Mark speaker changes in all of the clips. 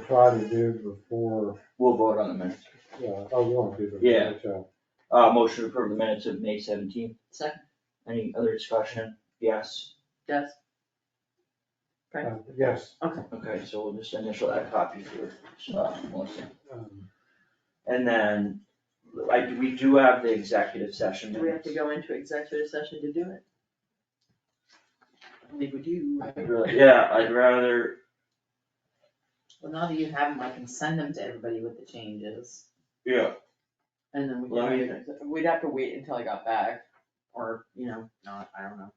Speaker 1: try to do before,
Speaker 2: We'll vote on the minutes.
Speaker 1: yeah, oh, you want to do the.
Speaker 2: Yeah.
Speaker 1: so,
Speaker 2: Uh, motion to approve the minutes of May seventeenth.
Speaker 3: Second,
Speaker 2: Any other discussion? Yes.
Speaker 3: yes,
Speaker 1: uh, Yes.
Speaker 2: Okay, so we'll just initial that copy for, uh, Melissa.
Speaker 1: um,
Speaker 2: And then, I, we do have the executive session
Speaker 3: do we have
Speaker 2: minutes.
Speaker 3: to go into executive session to do it? I think we do.
Speaker 2: I'd really- Yeah, I'd rather,
Speaker 4: Well, now that you have them, I can send them to everybody with the changes.
Speaker 2: yeah,
Speaker 3: And then we
Speaker 2: Let me-
Speaker 3: can, we'd have to wait until I got back, or, you know, not, I don't know.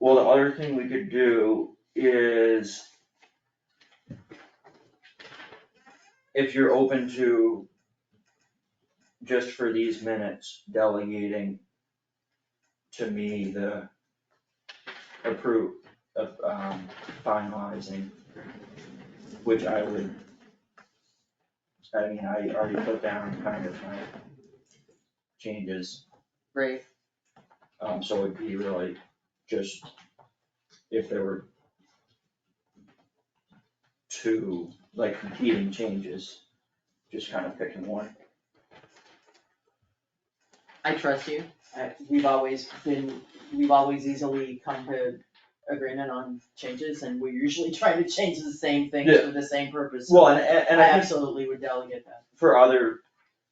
Speaker 2: well, the other thing we could do is if you're open to, just for these minutes, delegating to me the approve, of, um, finalizing, which I would, I mean, I already put down kind of my changes.
Speaker 3: Right,
Speaker 2: Um, so it'd be really just if there were two, like competing changes, just kind of picking one.
Speaker 3: I trust you, I, we've always been, we've always easily come to agreement on changes, and we're usually trying to change the same things
Speaker 2: Yeah.
Speaker 3: for the same purpose. so
Speaker 2: Well, and, and and
Speaker 3: I
Speaker 2: I think
Speaker 3: absolutely would delegate that,
Speaker 2: for other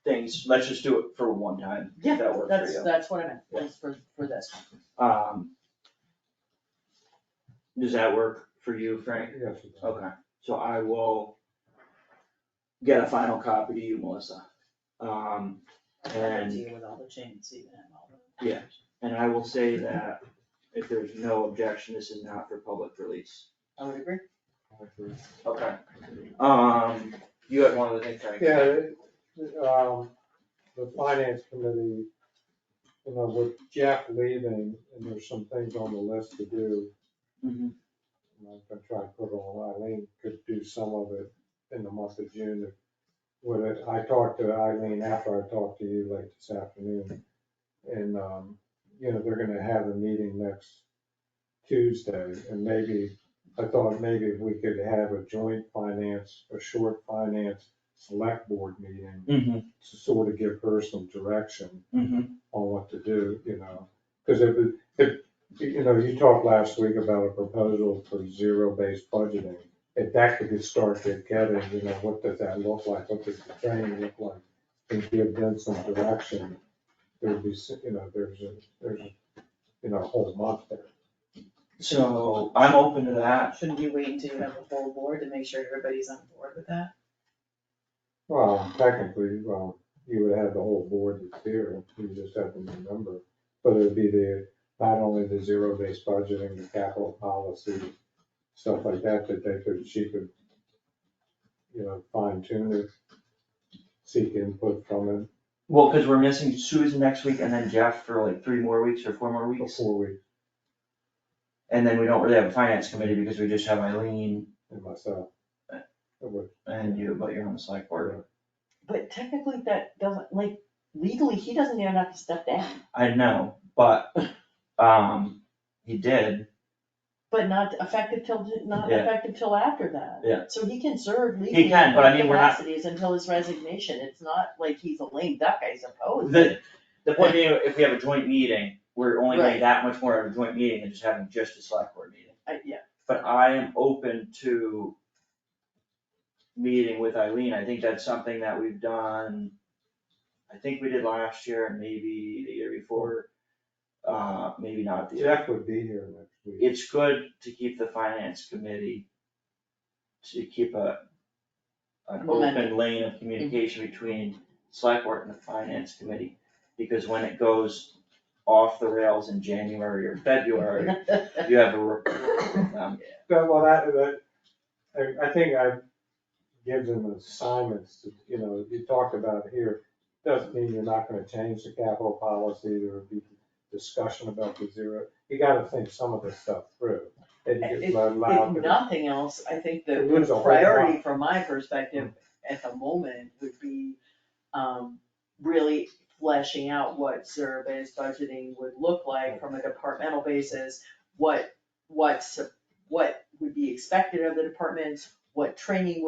Speaker 2: things, let's just do it for one time,
Speaker 3: Yeah,
Speaker 2: if that works for
Speaker 3: that's,
Speaker 2: you.
Speaker 3: that's what I meant, that's for, for this one.
Speaker 2: Um. Does that work for you, Frank?
Speaker 1: Yes. it does.
Speaker 2: Okay, so I will get a final copy to you, Melissa. Um, And-
Speaker 3: Deal with all the changes, even and all the.
Speaker 2: Yeah. and I will say that if there's no objection, this is not for public release.
Speaker 3: I would agree.
Speaker 1: I agree.
Speaker 2: Okay. Um, you had one other thing, Frank?
Speaker 1: Yeah, it- um, the finance committee, you know, with Jeff leaving, and there's some things on the list to do.
Speaker 2: Mhm.
Speaker 1: and I'm gonna try to put on, Eileen could do some of it in the month of June. Would it, I talked to Eileen after I talked to you late this afternoon. And, um, you know, they're gonna have a meeting next Tuesday and maybe, I thought maybe we could have a joint finance, a short finance select board meeting
Speaker 2: Mhm,
Speaker 1: to sort of give her some direction
Speaker 2: mhm.
Speaker 1: on what to do, you know, because it, was- it, you know, you talked last week about a proposal for zero-based budgeting. If that could be started getting, you know, what does that look like, what does the training look like, and give them some direction, there'd be, s- you know, there's a, there's, a you know, a whole month there.
Speaker 2: So I'm open to that.
Speaker 4: Shouldn't you wait until you have a full board to make sure everybody's on board with that?
Speaker 1: Well, technically, well, you would have the whole board that's here, you just have to remember, but it would be the, not only the zero-based budgeting, the capital policy, stuff like that, that they could, she could, you know, fine tune it, seek input from
Speaker 2: Well, cause we're missing Susan next week and then Jeff for like three more weeks or four more
Speaker 1: it
Speaker 2: weeks.
Speaker 1: before we,
Speaker 2: And then we don't really have a finance committee because we just have Eileen
Speaker 1: and myself. It would-
Speaker 2: and you, but you're on the select board.
Speaker 3: But technically, that doesn't, like, legally, he doesn't even have to step down,
Speaker 2: I know, but, um, he did.
Speaker 3: but not effective till, not
Speaker 2: Yeah.
Speaker 3: effective till after that.
Speaker 2: Yeah.
Speaker 3: So he can serve
Speaker 2: He
Speaker 3: legally in
Speaker 2: can, but I mean, we're not-
Speaker 3: capacities until his resignation, it's not like he's a lame duck, I suppose.
Speaker 2: The, the point being, if we have a joint meeting, we're only
Speaker 3: Right.
Speaker 2: getting that much more of a joint meeting than just having just a select board meeting.
Speaker 3: I- Yeah,
Speaker 2: but I am open to meeting with Eileen, I think that's something that we've done, I think we did last year and maybe the year before, uh, maybe not the year.
Speaker 1: Jeff would be here next week.
Speaker 2: It's good to keep the finance committee, to keep a, an open
Speaker 3: Momentum.
Speaker 2: lane of communication between select board and the finance committee, because when it goes off the rails in January or February, you have a report from them.
Speaker 1: Yeah, Well, that, that, I, I think I give them assignments, to you know, you talked about here, doesn't mean you're not gonna change the capital policy, there would be discussion about the zero, you gotta think some of this stuff through. And you
Speaker 3: If-
Speaker 1: just allow
Speaker 3: if
Speaker 1: them-
Speaker 3: nothing else, I think
Speaker 1: It
Speaker 3: the
Speaker 1: was a whole
Speaker 3: priority
Speaker 1: lot.
Speaker 3: from my perspective at the moment would be, um, really fleshing out what zero-based budgeting would look like from a departmental basis, what, what's, what would be expected of the departments, what training